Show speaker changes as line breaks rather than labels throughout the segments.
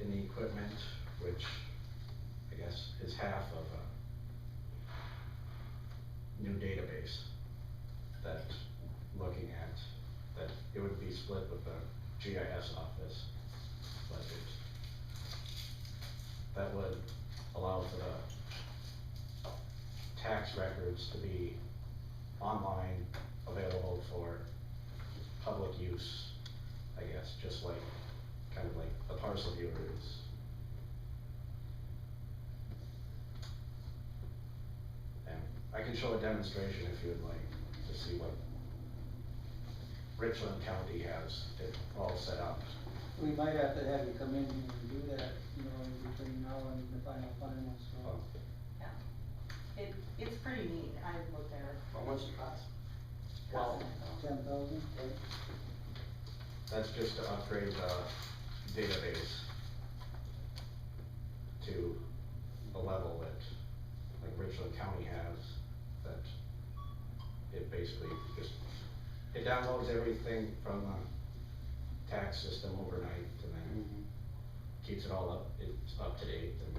equipment, which I guess is half of a new database that looking at, that it would be split with the GIS office budget. That would allow for the tax records to be online, available for public use, I guess, just like, kind of like the parcel viewer is. And I can show a demonstration if you would like, to see what Richland County has, it all set up.
We might have to have you come in here and do that, you know, in between now and the final final, so.
Um,
It, it's pretty neat, I looked at it.
How much it costs?
Well,
Ten thousand,
That's just to upgrade the database to a level that, like Richland County has, that it basically just, it downloads everything from the tax system overnight and then
Mm-hmm.
keeps it all up, it's up to date and,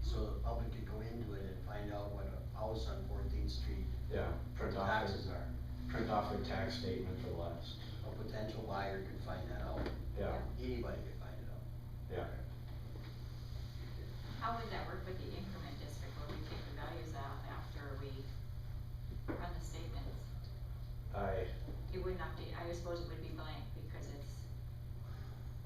So the public could go into it and find out what a house on Fourteenth Street
yeah, print off,
taxes
their-
are.
print off their tax statement for the last,
A potential buyer could find that out,
yeah,
anybody could find it out.
yeah.
How would that work with the increment district where we take the values out after we run the statements?
I,
It would not be, I suppose it would be blank because it's,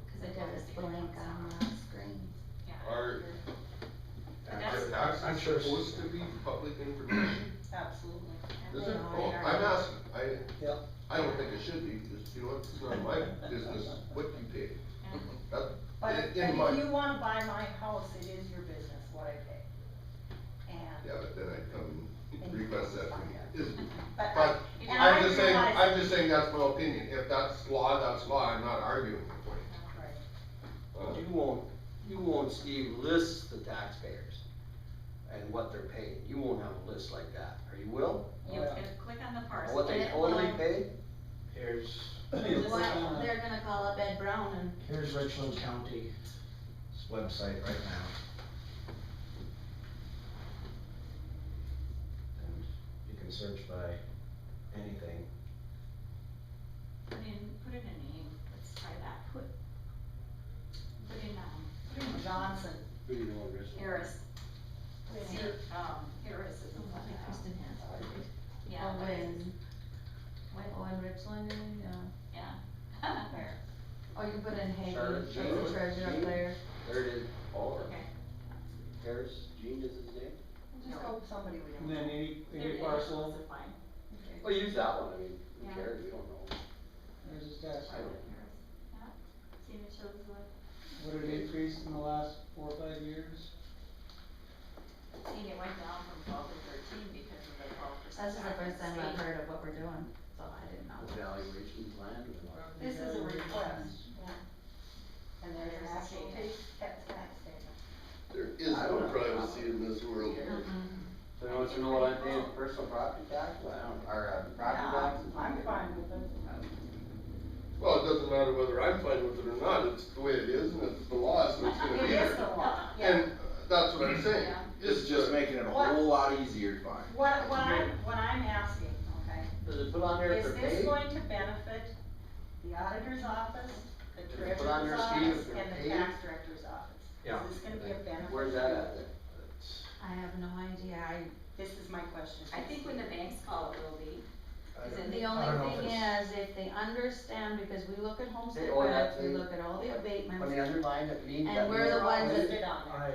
because it
Because
does
it's
the
blank
increments
on
out.
the screen.
Yeah.
Are-
But
Is
that's-
tax
I'm sure it's-
supposed to be public information?
Absolutely.
Is
They
it?
are-
Oh,
they are.
I'm asking, I,
yeah.
I don't think it should be, because you know, what, it's not my business what you pay.
Yeah.
That-
But
in-
if, but
in my-
if you wanna buy my house, it is your business what I pay. And,
Yeah, but then I come and request that from you. Is-
but I,
But
and I
I'm just saying,
realize-
I'm just saying that's my opinion. If that's law, that's law. I'm not arguing the point.
Right.
Uh,
You won't, you won't, Steve, list the taxpayers and what they're paying, you won't have a list like that, or you will?
You could click on the parcel.
What they
it
totally
will.
paid?
here's,
It's
What,
on a-
they're gonna call up Ed Brown and
here's Richland County's website right now. And you can search by anything.
Put in, put in a name, let's try that, put, put in, um,
Put in Johnson,
Who do you know, Rich?
Harris,
put in
see, um, Harris is the one,
Oh,
uh,
Kristen Hansford.
yeah. what is it?
Owen,
What?
Owen Richland, oh, and, yeah.
yeah.
there.
Oh, you put in Haiti,
Charlotte
as
Jean.
a treasure up there.
There it is, oh,
Okay.
Harris, Gene is his name?
Just go with somebody we
And
don't.
then any,
There
any
it is,
parcel,
it's fine.
Okay.
Well, use that one, I mean, who
Yeah.
cares, we don't know.
there's his tax.
I don't-
Harris, yeah. See if it shows what
What did it increase in the last four or five years?
Seeing it went down from twelve to thirteen because of the twelve percent.
This is the first time I've heard of what we're doing, so I didn't know.
Evaluation plan and what?
This is a request, and there's an
There's a
actual
statement.
tax, tax tax statement.
There is
I don't
no
know.
privacy in this world.
Mm-hmm.
So you want to know what I'm paying for personal property tax, I don't, or, uh, property
Yeah,
taxes?
I'm fine with it.
Well, it doesn't matter whether I'm fine with it or not. It's the way it is and it's the law, so it's gonna
It
be
is the
there.
law, yeah.
And uh, that's what I'm saying.
Yeah.
It's just making.
it a
What? whole
lot easier to find.
What, what I'm, what I'm asking, okay,
Does it put on there if
is
they're
this
paid?
going to benefit the auditor's office, the
Did you put on
treasurer's
your scheme if
office,
they're
and the
paid?
tax director's office?
Yeah.
Is this gonna be a benefit?
Where's that at?
I have no idea, I,
This is my question.
I think when the banks call it, will be.
I
Is it
the
don't know
only
if
thing
it's-
is, if they understand, because we look at homestead
They owe
credits,
that
we
to-
look at all the
On
abatements,
the underline that means
And
that.
we're the
we-
ones that-
Listed on there,
I,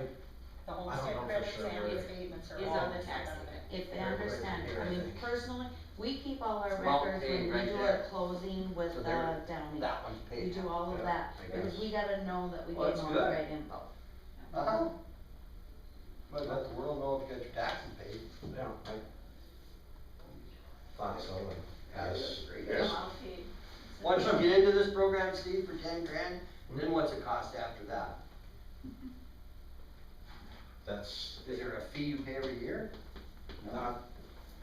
the
I
homestead
don't know for
credits
sure,
and the
but-
abatements are
Is
all
on the
listed
tax
on there.
if they
Right, right,
understand it. I
right.
mean, personally, we keep all our
It's about
records when
paid
we
right
do
there.
our closing with
So
the
there-
downy.
That one's
We
paid.
do all of
Yeah,
that,
I
because
guess.
we gotta know that we
Well,
gave
that's
them all the
good.
right info.
Uh-huh. But let the world know if you got your taxes paid.
yeah, I thought so, and
That's
as,
great.
Yes.
I'll pay.
Once you get into this program, Steve, for ten grand, then what's it cost after that?
that's
Is there a fee you pay every year?
not